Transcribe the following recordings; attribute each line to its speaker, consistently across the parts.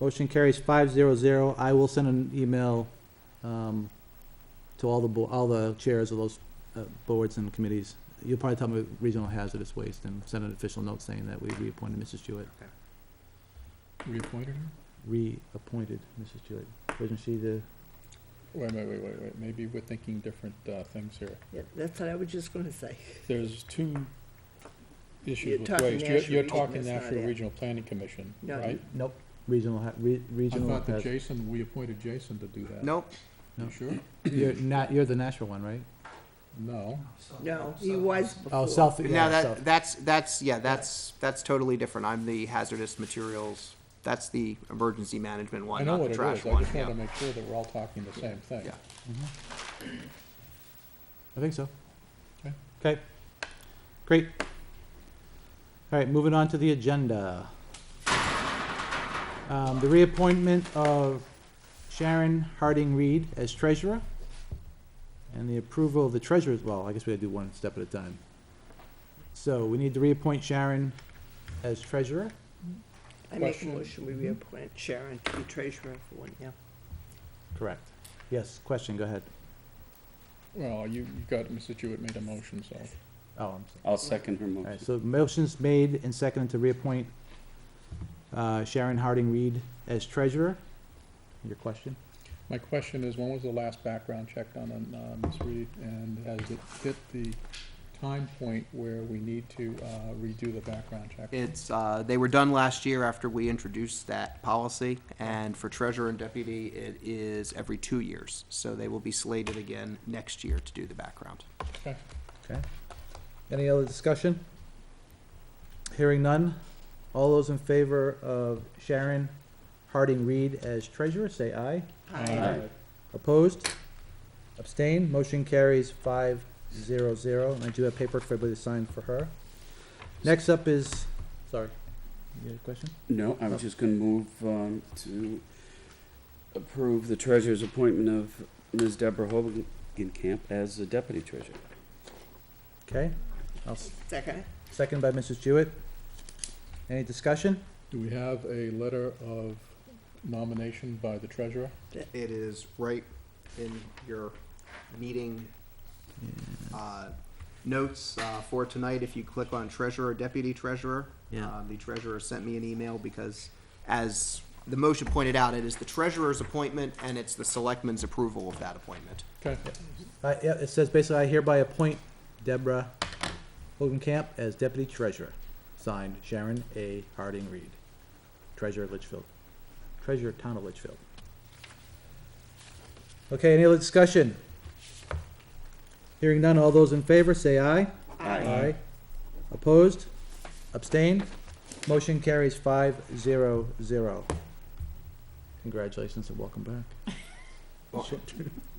Speaker 1: Motion carries five zero zero. I will send an email, um, to all the bo- all the chairs of those, uh, boards and committees. You'll probably tell me regional hazardous waste and send an official note saying that we reappointed Mrs. Jewett,
Speaker 2: Reappointed her?
Speaker 1: reappointed Mrs. Jewett. Wasn't she the,
Speaker 2: Wait, wait, wait, wait, wait, maybe we're thinking different, uh, things here.
Speaker 3: Yeah, That's what I was just gonna say.
Speaker 2: There's two
Speaker 3: You're
Speaker 2: issues with
Speaker 3: talking
Speaker 2: waste.
Speaker 3: National
Speaker 2: You're, you're
Speaker 3: Regional,
Speaker 2: talking
Speaker 3: it's not
Speaker 2: National
Speaker 3: it.
Speaker 2: Regional Planning Commission,
Speaker 3: No.
Speaker 2: right?
Speaker 1: nope, regional, ha- re-
Speaker 2: I
Speaker 1: regional.
Speaker 2: thought that
Speaker 1: has-
Speaker 2: Jason, we appointed Jason to do that.
Speaker 4: Nope,
Speaker 2: You
Speaker 1: No.
Speaker 2: sure?
Speaker 1: You're not, you're the Nashua one, right?
Speaker 2: No.
Speaker 3: No, he was before.
Speaker 1: Oh, South,
Speaker 4: now
Speaker 1: yeah,
Speaker 4: that,
Speaker 1: South.
Speaker 4: that's, that's, yeah, that's, that's totally different, I'm the hazardous materials, that's the emergency management
Speaker 2: I
Speaker 4: one,
Speaker 2: know
Speaker 4: not
Speaker 2: what
Speaker 4: the
Speaker 2: it is.
Speaker 4: trash
Speaker 2: I
Speaker 4: one,
Speaker 2: just
Speaker 4: yeah.
Speaker 2: wanted to make sure that we're all talking the same thing.
Speaker 4: Yeah.
Speaker 1: Mm-hmm. I think so.
Speaker 2: Okay.
Speaker 1: Okay. Great. All right, moving on to the agenda. Um, the reappointment of Sharon Harding Reed as treasurer and the approval of the treasurer's, well, I guess we gotta do one step at a time. So we need to reappoint Sharon as treasurer.
Speaker 3: I make a
Speaker 2: Question.
Speaker 3: motion, we reappoint Sharon to be treasurer for one year.
Speaker 1: Correct. Yes, question, go ahead.
Speaker 2: Well, you, you got, Mrs. Jewett made a motion, so.
Speaker 1: Oh, I'm sorry.
Speaker 5: I'll second her
Speaker 1: All right,
Speaker 5: motion.
Speaker 1: so motion's made and seconded to reappoint uh, Sharon Harding Reed as treasurer. Your question?
Speaker 2: My question is, when was the last background check done on, uh Ms. Reed? And has it hit the time point where we need to, uh, redo the background check?
Speaker 4: It's, uh, they were done last year after we introduced that policy, and for treasurer and deputy, it is every two years. So they will be slated again next year to do the background.
Speaker 2: Okay.
Speaker 1: Okay. Any other discussion? Hearing none. All those in favor of Sharon Harding Reed as treasurer, say aye.
Speaker 3: Aye.
Speaker 1: Opposed? Abstained? Motion carries five zero zero, and I do have paperwork for everybody to sign for her. Next up is, sorry, you had a question?
Speaker 5: No, I was just gonna move, um, to approve the treasurer's appointment of Ms. Deborah Hogenkamp as the deputy treasurer.
Speaker 1: Okay, I'll s-
Speaker 3: Second,
Speaker 1: Second by Mrs. Jewett. Any discussion?
Speaker 2: Do we have a letter of nomination by the treasurer?
Speaker 4: It is right in your meeting uh, notes uh, for tonight. If you click on treasurer, deputy treasurer.
Speaker 1: Yeah.
Speaker 4: um, The treasurer sent me an email because as the motion pointed out, it is the treasurer's appointment and it's the selectman's approval of that appointment.
Speaker 2: Okay,
Speaker 1: Uh, yeah, it says basically, I hereby appoint Deborah Hogenkamp as deputy treasurer. Signed, Sharon A. Harding Reed, treasurer of Litchfield, treasurer of town of Litchfield. Okay, any other discussion? Hearing none, all those in favor, say aye. Aye. Opposed? Abstained? Motion carries five zero zero. Congratulations and welcome back.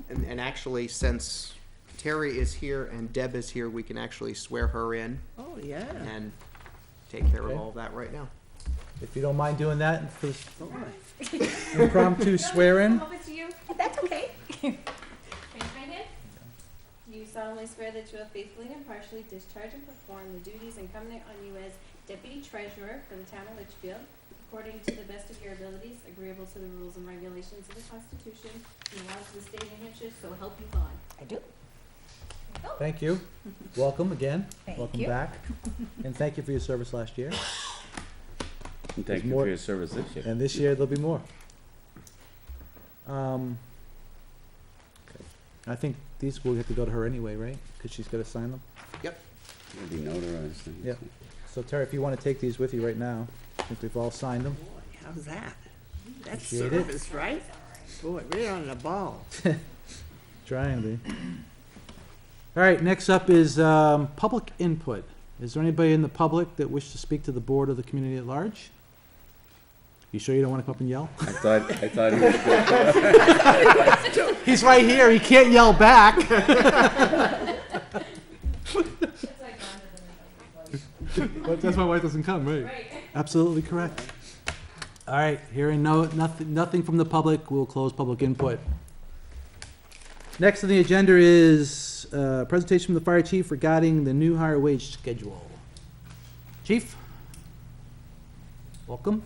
Speaker 4: And, and actually, since Terry is here and Deb is here, we can actually swear her in
Speaker 3: oh, yeah,
Speaker 4: and take care
Speaker 1: Okay.
Speaker 4: of all that right now.
Speaker 1: If you don't mind doing that and for this
Speaker 3: boy.
Speaker 1: impromptu swearing.
Speaker 6: Over to you.
Speaker 7: That's okay.
Speaker 6: Raise your right hand. Do you solemnly swear that you will faithfully and impartially discharge and perform the duties incumbent on you as deputy treasurer for the town of Litchfield according to the best of your abilities, agreeable to the rules and regulations of the Constitution and laws of the state of New Hampshire, so help you God? Oh,
Speaker 7: I do.
Speaker 1: Thank you. Welcome again.
Speaker 7: Thank
Speaker 1: Welcome
Speaker 7: you.
Speaker 1: back. And thank you for your service last year.
Speaker 5: And thank you
Speaker 1: more-
Speaker 5: for your service this year.
Speaker 1: And this year there'll be more. Um, I think these will have to go to her anyway, right? Because she's got to sign them.
Speaker 5: It'll be notarized. and
Speaker 1: Yep. So Terry, if you want to take these with you right now, I think we've all signed them.
Speaker 3: Boy, how's that? That's
Speaker 1: Appreciate it.
Speaker 3: service, right? Boy, we're on the ball.
Speaker 1: Trying to. All right, next up is um, public input. Is there anybody in the public that wish to speak to the board or the community at large? You sure you don't want to come up and yell?
Speaker 5: I thought, I thought he was good.
Speaker 1: He's right here, he can't yell back.
Speaker 6: It's like gone to the middle.
Speaker 1: That's why wife doesn't come,
Speaker 6: Right.
Speaker 1: Absolutely correct. All right, hearing no, nothing, nothing from the public, we'll close public input. Next on the agenda is, uh, presentation from the fire chief regarding the new higher wage schedule. Chief? Welcome.